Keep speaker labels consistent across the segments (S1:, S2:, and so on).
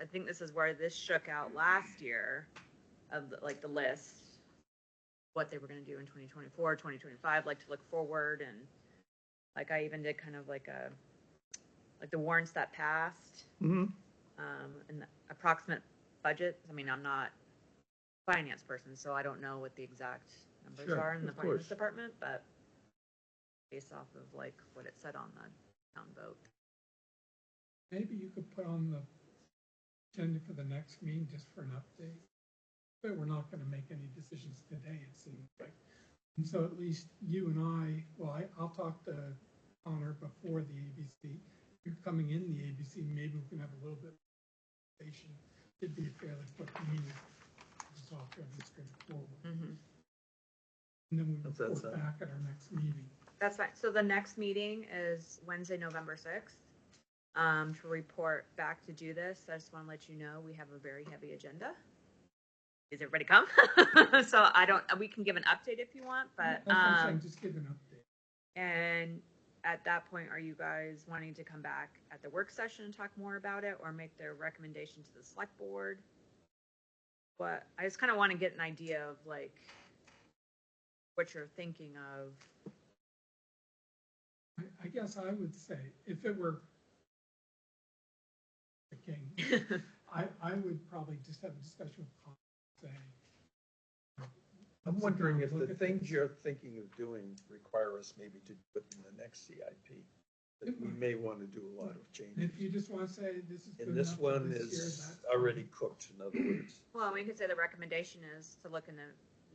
S1: I think this is where this shook out last year of the, like the list, what they were going to do in 2024, 2025, like to look forward. And like I even did kind of like a, like the warrants that passed
S2: hmm
S3: Mm-hmm.
S1: um, and the approximate budget. I mean, I'm not a finance person, so I don't know what the exact numbers
S2: Sure,
S1: are in the
S2: of
S1: finance
S2: course.
S1: department, but based off of like what it said on the town vote.
S3: Maybe you could put on the agenda for the next meeting just for an update. But we're not gonna make any decisions today, it seems like. And so at least you and I, well, I, I'll talk to Connor before the ABC. You're coming in the ABC, maybe we can have a little bit of conversation. It'd be a fairly quick meeting. Just talk to everything straight forward.
S1: Mhm.
S3: And then we
S2: That's- that's,
S3: report
S2: uh,
S3: back at our next meeting.
S1: That's fine. So the next meeting is Wednesday, November sixth. Um, to report back to do this, I just want to let you know we have a very heavy agenda. Is everybody come? so I don't. We can give an update if you want, but
S3: That's what I'm saying,
S1: um,
S3: Just give an update.
S1: and at that point, are you guys wanting to come back at the work session and talk more about it, or make their recommendation to the select board? But I just kind of want to get an idea of like what you're thinking of.
S3: I, I guess I would say, if it were the king, I, I would probably just have a discussion with Con, say.
S2: I'm wondering if
S3: Look
S2: the
S3: at
S2: things you're thinking of doing require us maybe to put in the next CIP. That we may want to do a lot of
S3: And if
S2: changes.
S3: you just wanna say, this is. good
S2: And this
S3: enough for
S2: one
S3: this year,
S2: is
S3: that's-
S2: already cooked, in other words.
S1: Well, we could say the recommendation is to look in the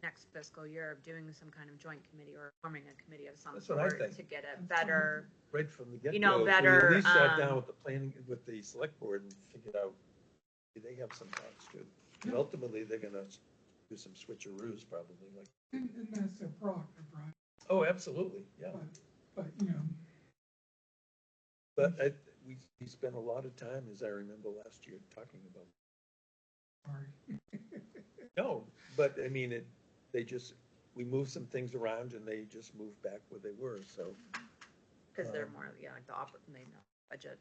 S1: next fiscal year of doing some kind of joint committee or forming a committee of some
S2: That's what I
S1: sort
S2: think.
S1: to get a better,
S2: Right from the get-go.
S1: You know,
S2: if we
S1: better,
S2: At least sat
S1: um,
S2: down with the planning, with the select board and figured out, do they have some thoughts too? And
S3: Yeah.
S2: ultimately, they're gonna do some switcheroos probably, like,
S3: And, and that's their prerogative, right?
S2: oh, absolutely, yeah.
S3: But, but, you know,
S2: But I, we, we spent a lot of time, as I remember last year, talking about
S3: sorry.
S2: No, but I mean, it, they just, we moved some things around and they just moved back where they were, so.
S1: because they're
S2: Um,
S1: more, yeah, like the oper, they know, budget.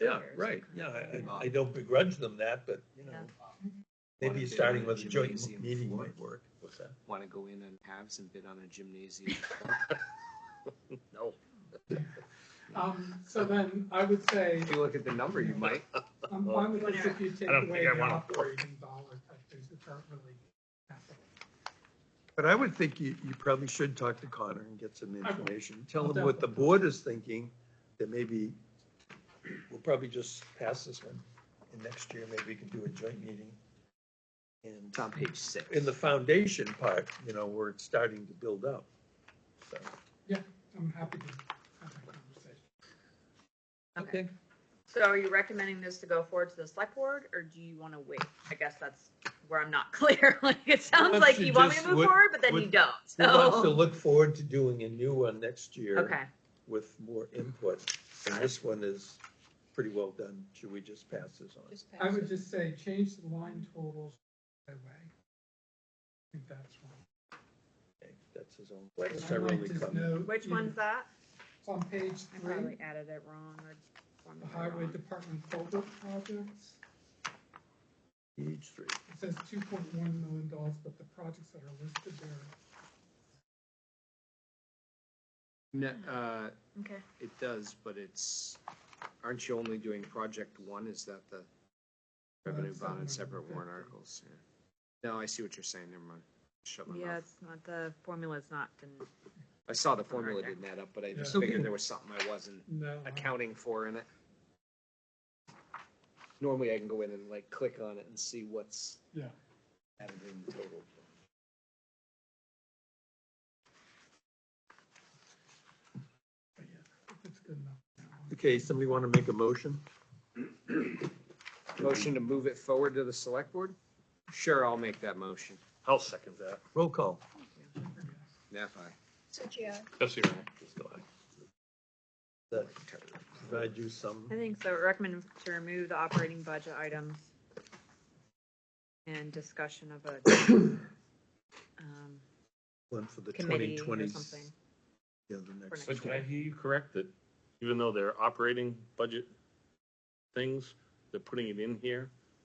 S2: Yeah,
S1: There's
S2: right,
S1: kind
S2: yeah,
S1: of
S2: I,
S1: a-
S2: I- I don't begrudge them that, but, you know,
S1: Yeah.
S2: maybe starting with a joint
S4: Gymnasium
S2: meeting
S4: floor.
S2: might work. What's that?
S4: want to go in and have some bid on a gymnasium.
S2: No.
S3: Um, so then I would say,
S4: If you look at the number, you might.
S3: I'm fine with this if you take
S2: don't
S3: away
S2: think I
S3: the
S2: wanna-
S3: operating dollars, that there's a current really.
S2: But I would think you, you probably should talk to Connor and get some
S3: will.
S2: information, tell
S3: I'll
S2: him what the
S3: definitely.
S2: board is thinking, that maybe, we'll probably just pass this one, and next year maybe we can do a joint meeting. And
S4: It's on page six.
S2: in the foundation part, you know, where it's starting to build up, so.
S3: I'm happy to have that conversation.
S1: Okay. So are you recommending this to go forward to the select board, or do you want to wait? I guess that's where I'm not clear. Like, it sounds
S2: don't
S1: like
S2: you
S1: you want me
S2: just-
S1: to move
S2: what-
S1: forward, but then
S2: what-
S1: you don't,
S2: We want to
S1: so.
S2: look forward to doing a new one next year.
S1: Oh. Okay,
S2: With more input, and this one is pretty well done, should we just pass this on?
S3: I would just say, change the line totals away. I think that's one.
S2: Okay, That's his own,
S3: I'd like
S2: necessarily
S3: to
S2: come.
S3: know-
S1: which one's that?
S3: It's on page
S1: I
S3: three,
S1: probably added it wrong or.
S3: the
S1: formatted
S3: highway
S1: wrong.
S3: department culvert projects.
S2: Each three,
S3: It says two point one million dollars, but the projects that are listed there,
S4: Ne- uh,
S1: Okay.
S4: it does, but it's, aren't you only doing project one? Is that the revenue
S3: That's
S4: bond and
S3: separate.
S4: separate warrant articles? Yeah. No, I see what you're saying. Never mind. Shut my
S1: Yeah,
S4: mouth.
S1: it's not, the formula's not, didn't-
S4: I saw the formula didn't add up, but I just
S3: Yeah.
S4: figured there was something I wasn't
S3: no.
S4: accounting for in it. Normally I can go in and like click on it and see what's
S3: Yeah.
S2: added in the total.
S3: but yeah, if It's good enough.
S2: Okay, somebody want to make a motion?
S4: motion to move it forward to the select board? Sure, I'll make that motion.
S2: I'll second that. Roll call.
S4: Neff, aye.
S5: Suchia,
S2: That provide you some,
S1: I think so, recommend to remove the operating budget items and discussion of a um,
S2: one for the twenty
S1: committee or
S2: twenties.
S1: something.
S2: Yeah, the next.
S1: For
S6: But did I hear you correct that even though they're operating budget things, they're putting it in here